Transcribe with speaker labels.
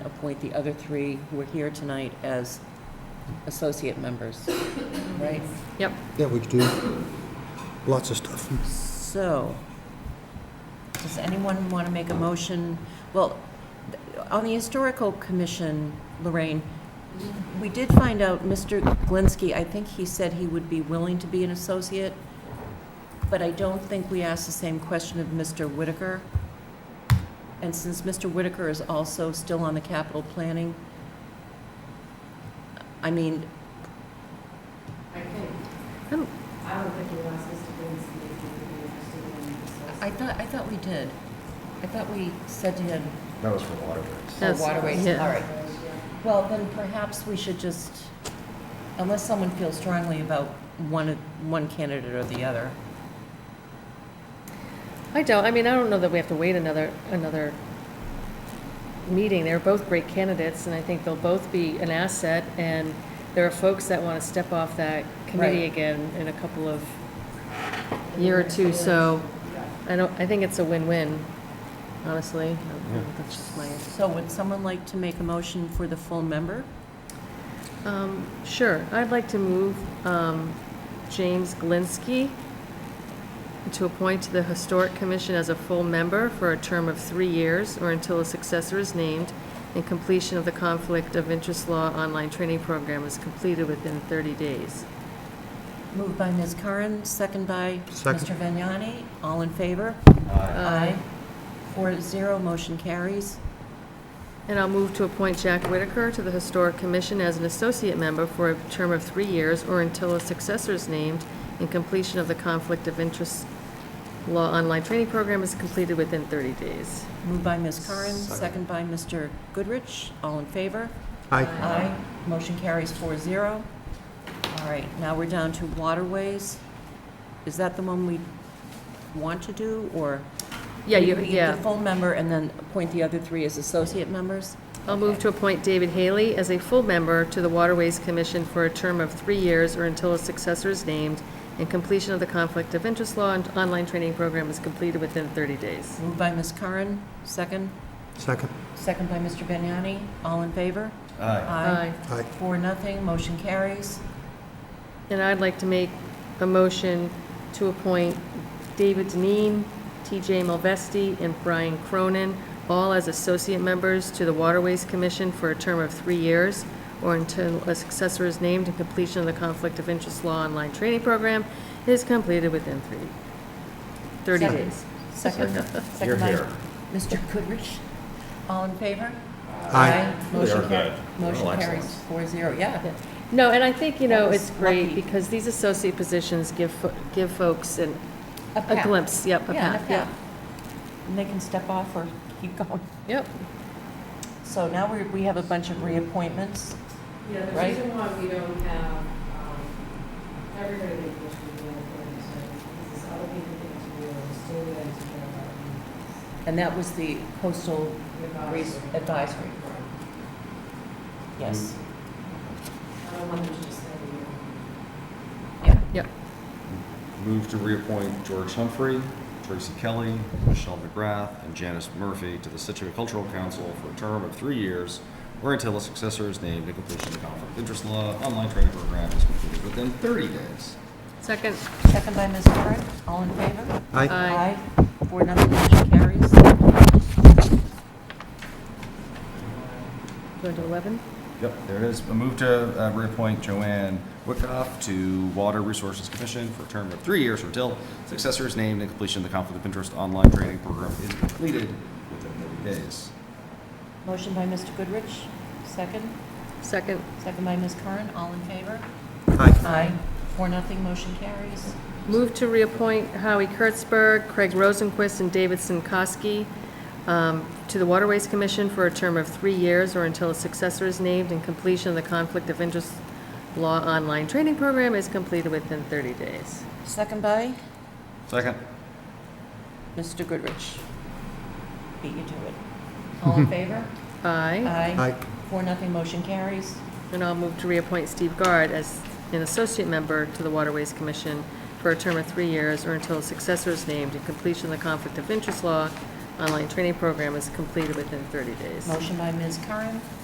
Speaker 1: appoint the other three who are here tonight as associate members, right?
Speaker 2: Yep.
Speaker 3: Yeah, we could do lots of stuff.
Speaker 1: So, does anyone want to make a motion? Well, th- on the Historical Commission, Lorraine, we did find out Mr. Glinsky, I think he said he would be willing to be an associate, but I don't think we asked the same question of Mr. Whitaker. And since Mr. Whitaker is also still on the capital planning, I mean,
Speaker 4: I think,
Speaker 2: Oh.
Speaker 4: I don't think you asked Mr. Dennison if he would be interested in this.
Speaker 1: I thought, I thought we did. I thought we said to him,
Speaker 5: That was for waterworks.
Speaker 1: Oh,
Speaker 2: That's-
Speaker 1: waterways, all
Speaker 2: yeah.
Speaker 1: right. Well, then perhaps we should just, unless someone feels strongly about one, one candidate or the other.
Speaker 2: I don't, I mean, I don't know that we have to wait another, another meeting. They're both great candidates, and I think they'll both be an asset, and there are folks that want to step off that committee
Speaker 1: Right.
Speaker 2: again in a couple of year or two, so I don't, I think it's a win-win, honestly. That's just my,
Speaker 1: So would someone like to make a motion for the full member?
Speaker 2: um, sure. I'd like to move, um, James Glinski to appoint to the Historic Commission as a full member for a term of three years or until a successor is named and completion of the Conflict of Interest Law online training program is completed within 30 days.
Speaker 1: Moved by Ms. Curran, second by
Speaker 3: Second.
Speaker 1: Mr. Vignani. All in favor? Aye. Four to zero, motion carries.
Speaker 2: And I'll move to appoint Jack Whitaker to the Historic Commission as an associate member for a term of three years or until a successor is named and completion of the Conflict of Interest Law online training program is completed within 30 days.
Speaker 1: Moved by Ms. Curran, second
Speaker 3: Second.
Speaker 1: by Mr. Goodrich. All in favor?
Speaker 3: Aye.
Speaker 1: Aye. Motion carries four zero. All right, now we're down to waterways. Is that the one we want to do, or?
Speaker 2: Yeah, you,
Speaker 1: We- we-
Speaker 2: yeah.
Speaker 1: The full member and then appoint the other three as associate members?
Speaker 2: I'll move to appoint David Haley as a full member to the Waterways Commission for a term of three years or until a successor is named and completion of the Conflict of Interest Law and online training program is completed within 30 days.
Speaker 1: Moved by Ms. Curran, second.
Speaker 3: Second.
Speaker 1: Second by Mr. Benyani. All in favor?
Speaker 5: Aye.
Speaker 3: Aye.
Speaker 1: Four, nothing. Motion carries.
Speaker 2: And I'd like to make a motion to appoint David Deneen, TJ Mulvey, and Brian Cronin, all as associate members to the Waterways Commission for a term of three years or until a successor is named and completion of the Conflict of Interest Law Online Training Program is completed within three, 30
Speaker 1: Second.
Speaker 2: days.
Speaker 1: Second.
Speaker 5: You're
Speaker 1: Second by
Speaker 5: here.
Speaker 1: Mr. Goodrich. All in favor?
Speaker 3: Aye.
Speaker 5: We
Speaker 1: Motion
Speaker 5: are
Speaker 1: car-
Speaker 5: good.
Speaker 1: Motion
Speaker 5: Real
Speaker 1: carries
Speaker 5: excellence.
Speaker 1: four zero, yeah.
Speaker 2: No, and I think, you
Speaker 1: That
Speaker 2: know,
Speaker 1: was
Speaker 2: it's great
Speaker 1: lucky.
Speaker 2: because these associate positions give, fo- give folks an- a
Speaker 1: path.
Speaker 2: glimpse, yep, a
Speaker 1: Yeah,
Speaker 2: path,
Speaker 1: yeah.
Speaker 2: yep.
Speaker 1: And they can step off or keep going.
Speaker 2: Yep.
Speaker 1: So now we, we have a bunch of reappointments.
Speaker 4: Yeah, the
Speaker 1: Right.
Speaker 4: reason why we don't have, um, everybody that goes to the board is because this other people think it's real, it's still there to care about.
Speaker 1: And that was the coastal
Speaker 4: the
Speaker 1: res-
Speaker 4: advisory.
Speaker 1: advisory, yes.
Speaker 4: I don't want them to just say, you
Speaker 1: Yeah.
Speaker 2: Yep.
Speaker 5: Move to reappoint George Humphrey, Tracy Kelly, Michelle McGrath, and Janice Murphy to the Situate Cultural Council for a term of three years or until a successor is named and completion of the conflict of interest law online training program is completed within 30 days.
Speaker 2: Second.
Speaker 1: Second by Ms. Curran, all in favor?
Speaker 3: Aye.
Speaker 2: Aye.
Speaker 1: Four, nothing, motion carries.
Speaker 2: Go to 11?
Speaker 5: Yep, there it is. A move to uh, reappoint Joanne Wickoff to Water Resources Commission for a term of three years or until successor is named and completion of the conflict of interest online training program is completed within 30 days.
Speaker 1: Motion by Mr. Goodrich, second,
Speaker 2: Second.
Speaker 1: second by Ms. Curran, all in favor?
Speaker 3: Aye.
Speaker 1: Aye. Four, nothing, motion carries.
Speaker 2: Move to reappoint Howie Kurtzberg, Craig Rosenquist, and David Sinkowski um, to the Waterways Commission for a term of three years or until a successor is named and completion of the Conflict of Interest Law Online Training Program is completed within 30 days.
Speaker 1: Second by
Speaker 5: Second.
Speaker 1: Mr. Goodrich. Beat you to it. All in favor?
Speaker 2: Aye.
Speaker 1: Aye.
Speaker 3: Aye.
Speaker 1: Four, nothing, motion carries.
Speaker 2: And I'll move to reappoint Steve Guard as an associate member to the Waterways Commission for a term of three years or until a successor is named and completion of the Conflict of Interest Law online training program is completed within 30 days.
Speaker 1: Motion by Ms. Curran,